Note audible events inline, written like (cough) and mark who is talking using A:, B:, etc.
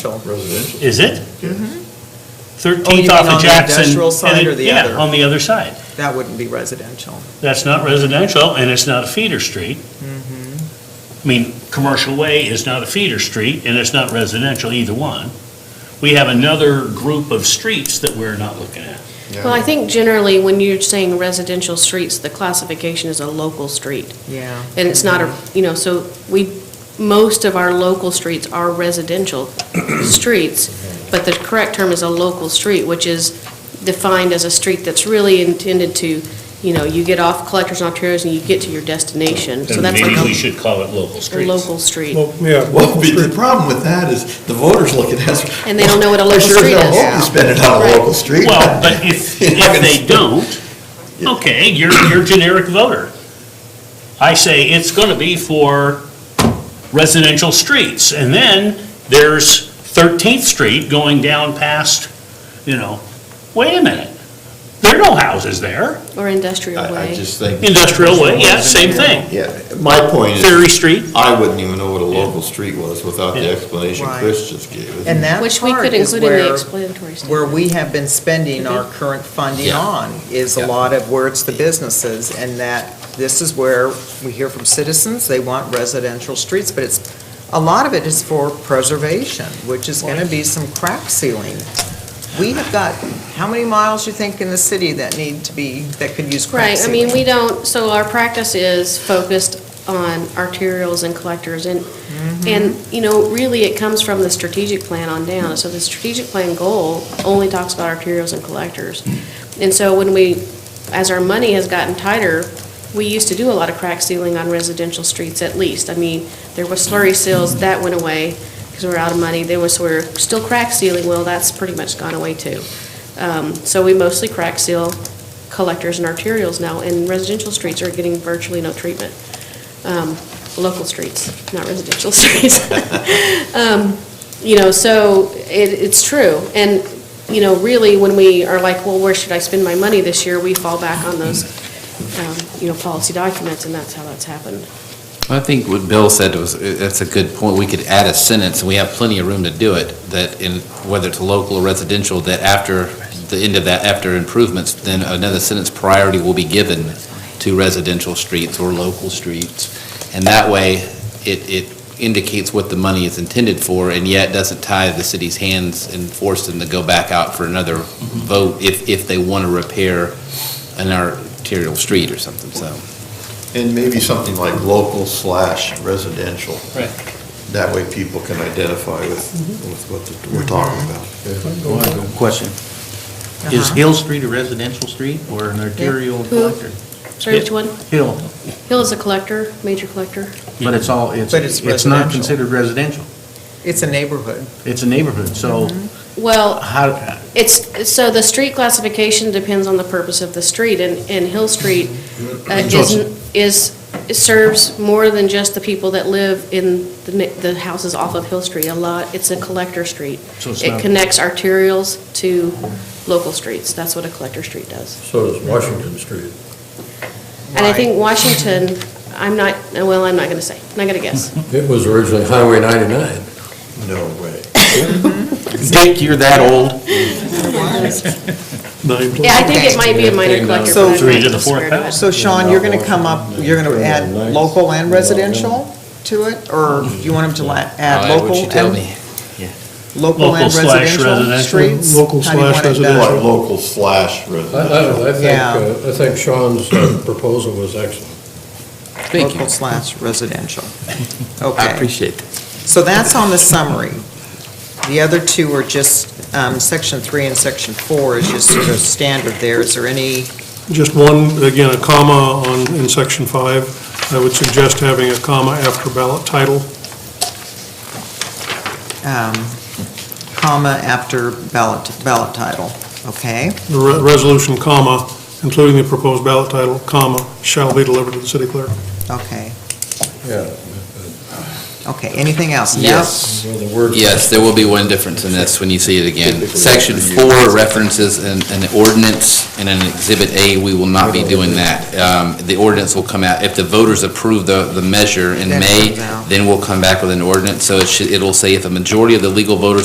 A: Residential.
B: Is it?
C: Oh, you
B: 13th
C: mean
B: off
C: Mm-hmm. on
B: of
C: the
B: Jackson.
C: industrial
B: and
C: side
B: it-
C: or the other?
B: Yeah, on the other side.
C: That wouldn't be residential.
B: That's not residential, and it's not a feeder street.
C: Mm-hmm.
B: I mean, Commercial Way is not a feeder street, and it's not residential, either one. We have another group of streets that we're not looking at.
A: Yeah.
D: Well, I think generally, when you're saying residential streets, the classification is a local street,
C: Yeah.
D: and it's not a, you know, so we, most of our local streets are residential (coughs) streets, but the correct term is a local street, which is defined as a street that's really intended to, you know, you get off collectors and arterios and you get to your destination, so
B: Then
D: that's like
B: maybe we
D: a-
B: should call it local
D: a
B: streets.
D: local street.
E: Well, yeah.
A: Well, be- the problem with that is the voters look at us.
D: And they don't know what a
A: I
D: local
A: sure
D: street
A: as hell
D: is.
A: hope you spend it on a
D: Right.
A: local
B: (laughs)
A: street.
B: Well, but if,
A: You're not
B: if they
A: gonna-
B: don't, okay, you're, you're a generic voter. I say it's gonna be for residential streets, and then there's Thirteenth Street going down past, you know, wait a minute, there are no houses there,
D: Or industrial
A: I, I
D: way.
A: just think.
B: Industrial way, yeah, same thing.
A: Yeah, my point
B: Ferry
A: is,
B: Street,
A: I wouldn't even know what a local street was without the
B: Yeah.
A: explanation
C: Right.
A: Chris just gave us.
C: And that
D: Which we
C: part
D: could
C: is
D: include in the
C: where,
D: explanatory statement.
C: where we have been spending our current funding
A: Yeah.
C: on, is a
A: Yeah.
C: lot of where it's the businesses, and that this is where we hear from citizens, they want residential streets, but it's, a lot of it is for preservation, which is gonna be some crack sealing. We have got, how many miles you think in the city that need to be, that could use crack
D: Right, I
C: sealing?
D: mean, we don't, so our practice is focused on arterials and collectors, and, and, you know, really, it comes from the strategic plan on down. So the strategic plan goal only talks about arterials and collectors. And so when we, as our money has gotten tighter, we used to do a lot of crack sealing on residential streets at least. I mean, there was slurry seals, that went away because we were out of money. There was, we we're still crack sealing, well, that's pretty much gone away too. Um, So we mostly crack seal collectors and arterials now, and residential streets are getting virtually no treatment. Um, Local streets, not residential (laughs) streets. Um, You know, so it, it's true. And, you know, really, when we are like, well, where should I spend my money this year? We fall back on those, um, you know, policy documents, and that's how that's happened.
F: I think what Bill said was, that's a good point. We could add a sentence, and we have plenty of room to do it, that in, whether it's local or residential, that after the end of that, after improvements, then another sentence, priority will be given to residential streets or local streets. And that way, it, it indicates what the money is intended for, and yet doesn't tie the city's hands and force them to go back out for another vote if, if they want to repair an arterial street or something, so.
A: And maybe something like local slash residential.
B: Right.
A: That way people can identify with,
D: Mm-hmm.
A: with what the- we're talking about.
G: Question.
C: Uh-huh.
G: Is Hill Street a residential street or an arterial
D: Who?
G: collector?
D: Sorry, which one?
G: Hill,
D: Hill is a collector, major collector.
G: but it's all, it's,
C: But it's
G: it's not
C: residential.
G: considered residential.
C: It's a neighborhood.
G: It's a neighborhood, so
D: Well,
G: how,
D: It's, so the street classification depends on the purpose of the street, and, and Hill Street uh, is, is, it serves more than just the people that live in the, ne- the houses off of Hill Street a lot. It's a collector street.
G: So it's
D: It
G: not-
D: connects arterials to local streets. That's what a collector street does.
H: So does Washington Street.
D: And I
C: Right.
D: think Washington, I'm not, well, I'm not gonna say, I'm not gonna guess.
H: It was originally Highway 99.
A: No way.
G: Dick, you're that old?
D: Yeah, I think it might be a minor collector,
C: So-
D: but I'm
B: Three
D: not
B: to the
D: just
B: fourth
D: scared of it.
B: house.
C: So Sean, you're gonna come up, you're gonna add local and residential to it, or do you want him to la- add
F: All right, what
C: local
F: you tell me.
C: and, local
B: Local
C: and
B: slash
C: residential
B: residential.
C: streets?
E: Local
C: How do you
E: slash
C: want it done?
E: residential.
A: Like local slash
H: I, I don't
A: residential.
H: know, I think,
C: Yeah.
H: uh, I think Sean's uh, proposal was excellent.
F: Thank you.
C: Local slash residential.
F: (laughs) I
C: Okay,
F: appreciate that.
C: so that's on the summary. The other two are just, um, section three and section four is just sort of standard there. Is there any,
E: Just one, again, a comma on, in section five. I would suggest having a comma after ballot title.
C: um, comma after ballot, ballot title? Okay,
E: The re- resolution, comma, including the proposed ballot title, comma, shall be delivered to the city clerk.
C: okay,
H: Yeah.
C: okay. Anything else? Now-
F: Yes.
H: Well, the word-
F: Yes, there will be one difference in this when you see it again. Section four references an, an ordinance and an exhibit A, we will not be doing that. Um, the ordinance will come out, if the voters approve the, the measure in
C: Then it
F: May,
C: comes out.
F: then we'll come back with an ordinance. So it should, it'll say if a majority of the legal voters